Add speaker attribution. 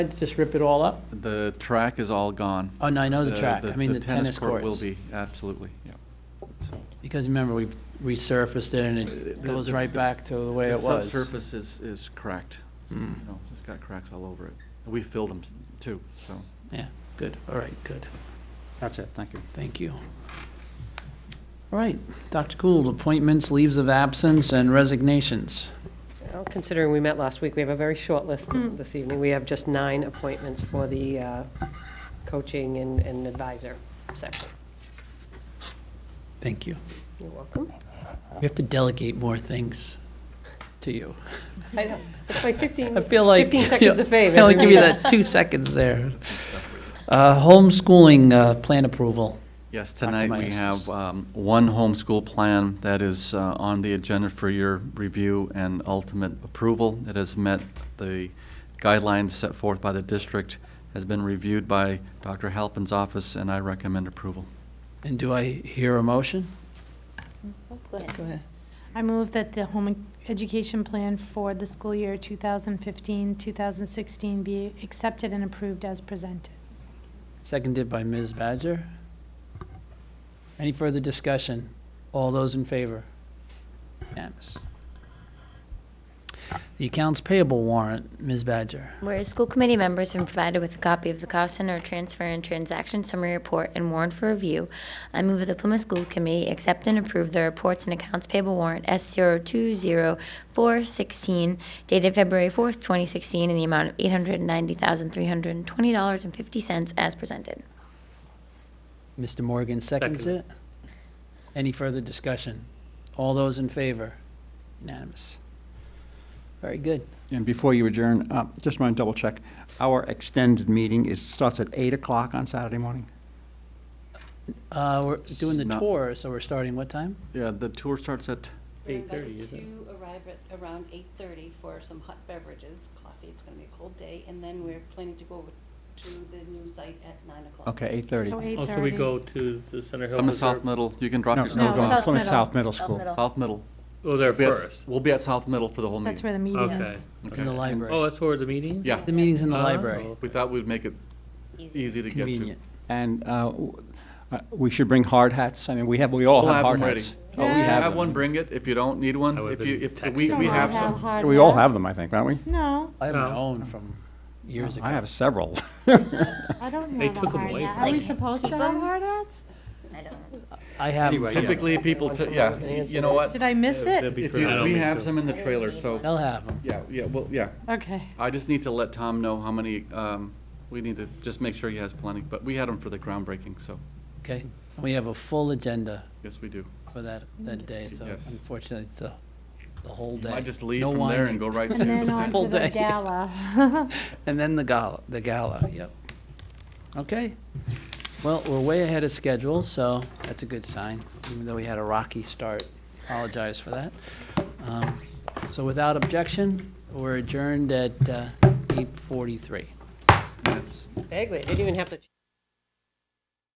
Speaker 1: Just rip it all up?
Speaker 2: The track is all gone.
Speaker 1: Oh, no, I know the track. I mean, the tennis courts.
Speaker 2: court will be, absolutely, yeah.
Speaker 1: Because remember, we resurfaced it and it
Speaker 2: The-
Speaker 1: goes
Speaker 2: the-
Speaker 1: right back to the way
Speaker 2: The
Speaker 1: it was.
Speaker 2: subsurface is, is cracked,
Speaker 1: Mm,
Speaker 2: you know, it's got cracks all over it. We filled them too, so.
Speaker 1: Yeah, good, all right, good,
Speaker 3: That's it, thank you.
Speaker 1: thank you. All right, Dr. Gould, appointments, leaves of absence, and resignations.
Speaker 4: Well, Considering we met last week, we have a very short list this evening. We have just nine appointments for the uh, coaching and and advisor section.
Speaker 1: Thank you.
Speaker 4: You're welcome.
Speaker 1: We have to delegate more things to you.
Speaker 4: I know. It's my 15,
Speaker 1: I feel like.
Speaker 4: 15 seconds of fame.
Speaker 1: I only
Speaker 4: every
Speaker 1: give you
Speaker 4: week.
Speaker 1: that two seconds there. Uh, Homeschooling uh, plan approval.
Speaker 2: Yes,
Speaker 1: Dr.
Speaker 2: tonight we
Speaker 1: Myers.
Speaker 2: have um, one homeschool plan that is uh, on the agenda for your review and ultimate approval. It has met the guidelines set forth by the district, has been reviewed by Dr. Halpin's office, and I recommend approval.
Speaker 1: And do I hear a motion?
Speaker 5: Go ahead.
Speaker 1: Go ahead.
Speaker 5: I move that the home education plan for the school year 2015-2016 be accepted and approved as presented.
Speaker 1: Seconded by Ms. Badger. Any further discussion? All those in favor? Unanimous. The accounts payable warrant, Ms. Badger.
Speaker 6: Whereas school committee members have been provided with a copy of the cost center transfer and transaction summary report and warrant for review, I move that the Plymouth School Committee accept and approve the reports and accounts payable warrant S zero two zero four sixteen dated February fourth, twenty sixteen, in the amount of eight hundred and ninety thousand, three hundred and twenty dollars and fifty cents as presented.
Speaker 1: Mr. Morgan seconds it. Any further discussion? All those in favor? Unanimous. Very good.
Speaker 3: And before you adjourn, uh, just want to double check, our extended meeting is, starts at 8 o'clock on Saturday morning?
Speaker 1: Uh, we're doing the
Speaker 2: Not-
Speaker 1: tour, so we're starting what time?
Speaker 2: Yeah, the tour starts at,
Speaker 7: We're
Speaker 1: 8:30,
Speaker 7: invited
Speaker 1: isn't it?
Speaker 7: to arrive at around eight-thirty for some hot beverages, coffee, it's gonna be a cold day, and then we're planning to go to the new site at nine o'clock.
Speaker 3: Okay, 8:30.
Speaker 8: Oh, so we go to the Center Hill.
Speaker 2: I'm a
Speaker 8: Is there-
Speaker 2: South Middle, you can drop
Speaker 3: No,
Speaker 2: your
Speaker 3: no,
Speaker 2: stuff
Speaker 5: No,
Speaker 3: go on.
Speaker 5: South
Speaker 3: Plymouth
Speaker 5: Middle.
Speaker 3: South Middle
Speaker 6: South
Speaker 3: School.
Speaker 6: Middle.
Speaker 2: South Middle.
Speaker 8: Oh, there
Speaker 2: We'll be at-
Speaker 8: first.
Speaker 2: We'll be at South Middle for the whole meeting.
Speaker 5: That's where the meeting
Speaker 8: Okay.
Speaker 5: is.
Speaker 1: In the
Speaker 2: Okay.
Speaker 1: library.
Speaker 8: Oh, that's where the meeting?
Speaker 2: Yeah, Uh,
Speaker 1: The meeting's in the
Speaker 8: Oh,
Speaker 1: library.
Speaker 2: we thought we'd make it easy to get to.
Speaker 1: Convenient.
Speaker 3: And uh, w- uh, we should bring hard hats, I mean, we have, we all
Speaker 2: We'll
Speaker 3: have
Speaker 2: have
Speaker 3: hard
Speaker 2: them ready.
Speaker 3: hats.
Speaker 2: Oh,
Speaker 3: we
Speaker 2: If you
Speaker 3: have
Speaker 2: have
Speaker 3: them.
Speaker 2: one, bring it. If you don't need one,
Speaker 8: I would've
Speaker 2: if you,
Speaker 8: been
Speaker 2: if, we,
Speaker 8: texting
Speaker 2: we
Speaker 8: them.
Speaker 2: have
Speaker 5: Someone
Speaker 2: some.
Speaker 5: hard
Speaker 3: We all
Speaker 5: hats?
Speaker 3: have them, I think, don't we?
Speaker 5: No,
Speaker 1: I have my
Speaker 8: No.
Speaker 1: own from years ago.
Speaker 3: I have several.
Speaker 5: I don't
Speaker 8: They
Speaker 5: have a
Speaker 8: took 'em
Speaker 5: hard
Speaker 8: away
Speaker 5: hat.
Speaker 8: from
Speaker 5: Are we
Speaker 8: me.
Speaker 5: supposed to
Speaker 6: Keep
Speaker 5: have
Speaker 6: 'em?
Speaker 5: hard hats?
Speaker 6: I don't.
Speaker 1: I have
Speaker 3: Anyway, yeah.
Speaker 2: Typically, people, t- yeah, y- you know what?
Speaker 5: Did I miss it?
Speaker 8: That'd be
Speaker 2: If
Speaker 8: great. I
Speaker 2: you,
Speaker 8: don't
Speaker 2: we
Speaker 8: think
Speaker 2: have
Speaker 8: so.
Speaker 2: some in the trailer, so,
Speaker 1: They'll have them.
Speaker 2: yeah, yeah, well, yeah.
Speaker 5: Okay.
Speaker 2: I just need to let Tom know how many, um, we need to just make sure he has plenty, but we had them for the groundbreaking, so,
Speaker 1: Okay, and we have a full agenda
Speaker 2: yes, we do.
Speaker 1: for that, that day, so
Speaker 2: Yes.
Speaker 1: unfortunately, it's a, the whole
Speaker 2: I
Speaker 1: day.
Speaker 2: just leave
Speaker 1: No
Speaker 2: from there
Speaker 1: whining.
Speaker 2: and go right to.
Speaker 5: And then
Speaker 2: the
Speaker 5: on
Speaker 1: Full
Speaker 5: to the
Speaker 1: day.
Speaker 5: gala.
Speaker 1: And then the gala, the gala, yep. Okay, well, we're way ahead of schedule, so that's a good sign, even though we had a rocky start. Apologize for that. Um, So without objection, we're adjourned at uh, eight forty-three.
Speaker 2: That's-
Speaker 4: Bagley, I didn't even have to.